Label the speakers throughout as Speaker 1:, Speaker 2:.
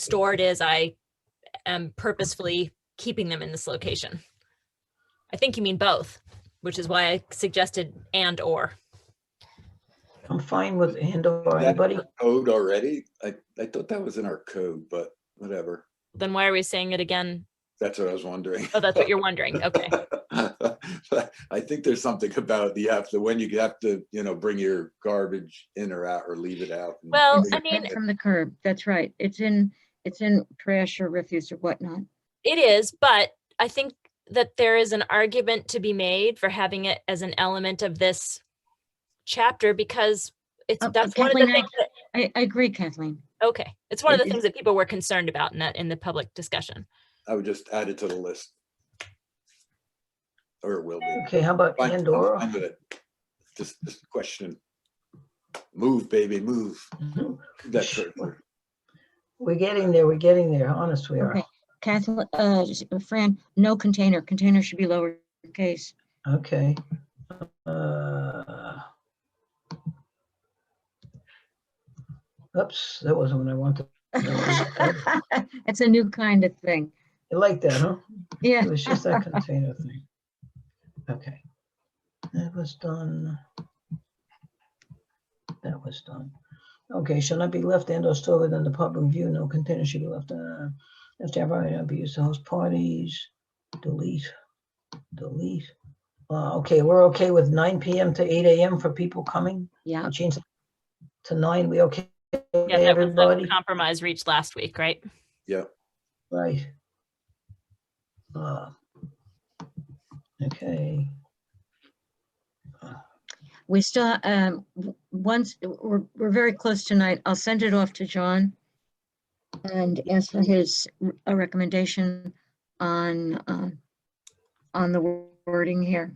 Speaker 1: stored is, I am purposefully keeping them in this location. I think you mean both, which is why I suggested and or.
Speaker 2: I'm fine with and or
Speaker 3: That's
Speaker 2: anybody.
Speaker 3: our Code already? I, I thought that was in our code, but whatever.
Speaker 1: Then why are we saying it again?
Speaker 3: That's what I was wondering.
Speaker 1: Oh, that's what you're wondering. Okay.
Speaker 3: I think there's something about the have to when you have to, you know, bring your garbage in or out or leave it out. and-
Speaker 1: Well,
Speaker 3: Leave
Speaker 1: I
Speaker 3: it-
Speaker 1: mean,
Speaker 3: Yeah.
Speaker 4: From the curb, that's right. It's in, it's in trash or refuse or whatnot.
Speaker 1: It is, but I think that there is an argument to be made for having it as an element of this chapter because it's,
Speaker 4: Uh,
Speaker 1: that's one of the
Speaker 4: Kathleen, I-
Speaker 1: things that,
Speaker 4: I, I agree, Kathleen.
Speaker 1: okay. It's one of the
Speaker 3: It- it-
Speaker 1: things that people were concerned about in that, in the public discussion.
Speaker 3: I would just add it to the list. Or it will be.
Speaker 2: Okay, how about
Speaker 3: Fine,
Speaker 2: and
Speaker 3: I'm
Speaker 2: or?
Speaker 3: fine with it. Just, just a question. Move, baby, move.
Speaker 2: Mhm.
Speaker 3: That certain word.
Speaker 2: We're getting there, we're getting there, honest we are.
Speaker 4: Okay. Kathleen, uh, s- uh, Fran, no container. Container should be lowercase.
Speaker 2: Okay. Uh, Oops, that wasn't what I wanted.
Speaker 4: It's a new kind of thing.
Speaker 2: I like that, huh?
Speaker 4: Yeah.
Speaker 2: It was just that container thing. Okay. That was done. That was done. Okay, shall not be left and or stored within the public view, no container should be left, uh, after everybody not be used to host parties, delete, delete. Uh, okay, we're okay with nine PM to eight AM for people coming,
Speaker 4: Yeah,
Speaker 2: I'll change that to nine, we okay? with
Speaker 1: Yeah, that was the
Speaker 2: Everybody,
Speaker 1: compromise reached last week, right?
Speaker 3: Yeah,
Speaker 2: right? Uh, Okay.
Speaker 4: we still, um, w- once, we're, we're very close tonight. I'll send it off to John and ask for his, r- a recommendation on, um, on the wording here.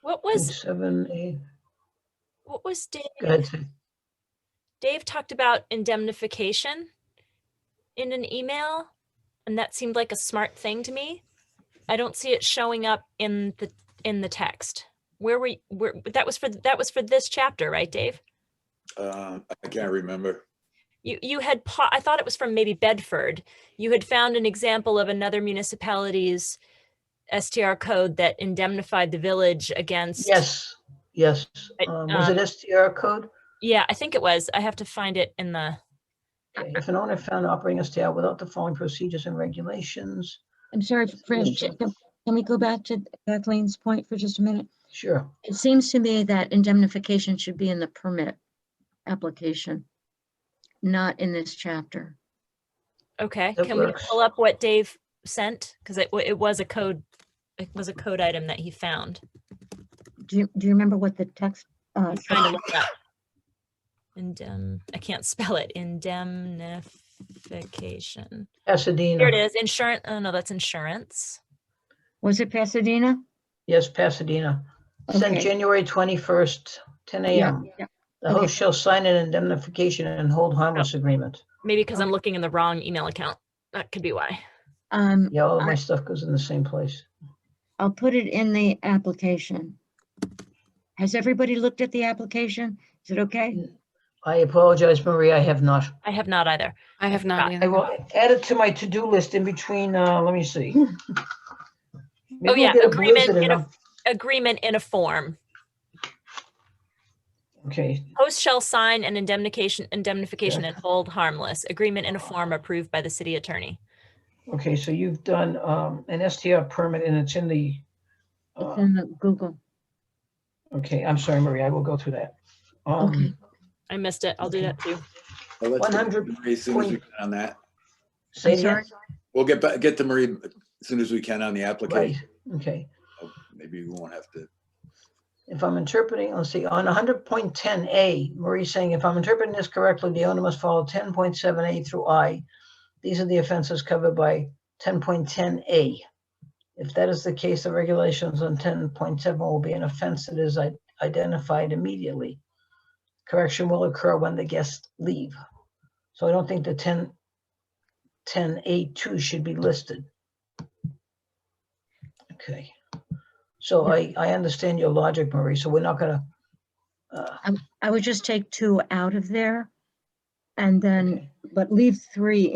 Speaker 1: What
Speaker 2: Page
Speaker 1: was,
Speaker 2: Seven, eight,
Speaker 1: what was Dave?
Speaker 2: go ahead, Sid.
Speaker 1: Dave talked about indemnification in an email, and that seemed like a smart thing to me. I don't see it showing up in the in the text. Where were you, where that was for that was for this chapter, right, Dave?
Speaker 3: uh, I can't remember.
Speaker 1: You you had pa- I thought it was from maybe Bedford. You had found an example of another municipality's STR code that indemnified the village against.
Speaker 2: Yes, yes.
Speaker 1: Right,
Speaker 2: Um, Was
Speaker 1: um,
Speaker 2: it STR code?
Speaker 1: Yeah, I think it was. I have to find it in the.
Speaker 2: Okay, If an owner found operating STR without the following procedures and regulations,
Speaker 4: I'm sorry, Fran,
Speaker 2: Yes,
Speaker 4: j-
Speaker 2: sure.
Speaker 4: can can we go back to Kathleen's point for just a minute?
Speaker 2: sure.
Speaker 4: It seems to me that indemnification should be in the permit application, not in this chapter.
Speaker 1: Okay,
Speaker 2: That
Speaker 1: can we
Speaker 2: works.
Speaker 1: pull up what Dave sent? Because it, wa- it was a code, it was a code item that he found.
Speaker 4: Do you, do you remember what the text? uh,
Speaker 1: I'm trying to look it up. Indem, I can't spell it, indemnification. Here it
Speaker 2: Pasadena,
Speaker 1: is, insurance, oh no, that's insurance.
Speaker 4: Was it Pasadena?
Speaker 2: yes, Pasadena. Sent
Speaker 4: Okay.
Speaker 2: January 21st, 10 a.m.
Speaker 4: yeah.
Speaker 2: The
Speaker 4: okay.
Speaker 2: host shall sign an indemnification and hold
Speaker 1: Oh.
Speaker 2: harmless agreement.
Speaker 1: Maybe because I'm looking in the wrong email account. That could be why.
Speaker 4: Um,
Speaker 2: Yeah, all of my
Speaker 4: I-
Speaker 2: stuff goes in the same place.
Speaker 4: I'll put it in the application. Has everybody looked at the application? Is it okay?
Speaker 2: I apologize, Marie, I have not.
Speaker 1: I have not either.
Speaker 5: I have not
Speaker 1: Scott,
Speaker 2: I
Speaker 5: either.
Speaker 2: will add it to my to-do list in between, uh, let me see. Maybe we'll
Speaker 1: Oh, yeah,
Speaker 2: get a
Speaker 1: agreement
Speaker 2: blizzard and
Speaker 1: in a-
Speaker 2: I'll-
Speaker 1: Agreement in a form.
Speaker 2: Okay,
Speaker 1: Host shall sign an indemnification, indemnification and hold harmless. Agreement in a form approved by the city attorney.
Speaker 2: okay, so you've done, um, an STR permit and it's in the,
Speaker 4: It's
Speaker 1: Mm-hmm.
Speaker 2: uh,
Speaker 4: in the Google.
Speaker 2: okay, I'm sorry, Marie, I will go through that.
Speaker 4: Okay.
Speaker 2: Um,
Speaker 1: I missed it. I'll do
Speaker 2: Okay.
Speaker 1: that too.
Speaker 3: I'll let you get
Speaker 2: 100
Speaker 3: to Marie As soon as we
Speaker 2: point-
Speaker 3: can on that,
Speaker 2: say
Speaker 4: I'm
Speaker 2: again?
Speaker 4: sorry.
Speaker 3: we'll get back, get to Marie as soon as we can on the
Speaker 2: Right,
Speaker 3: application.
Speaker 2: okay.
Speaker 3: Oh, Maybe we won't have to.
Speaker 2: If I'm interpreting, let's see, on hundred point ten A, Marie's saying, if I'm interpreting this correctly, the owner must follow ten point seven A through I. These are the offenses covered by ten point ten A. If that is the case, the regulations on ten point seven will be an offense that is i- identified immediately. Correction will occur when the guests leave. So I don't think the 10 A two should be listed. Okay. So I, I understand your logic, Marie, so we're not gonna, uh,
Speaker 4: I would just take two out of there And then,
Speaker 2: Okay.
Speaker 4: but leave three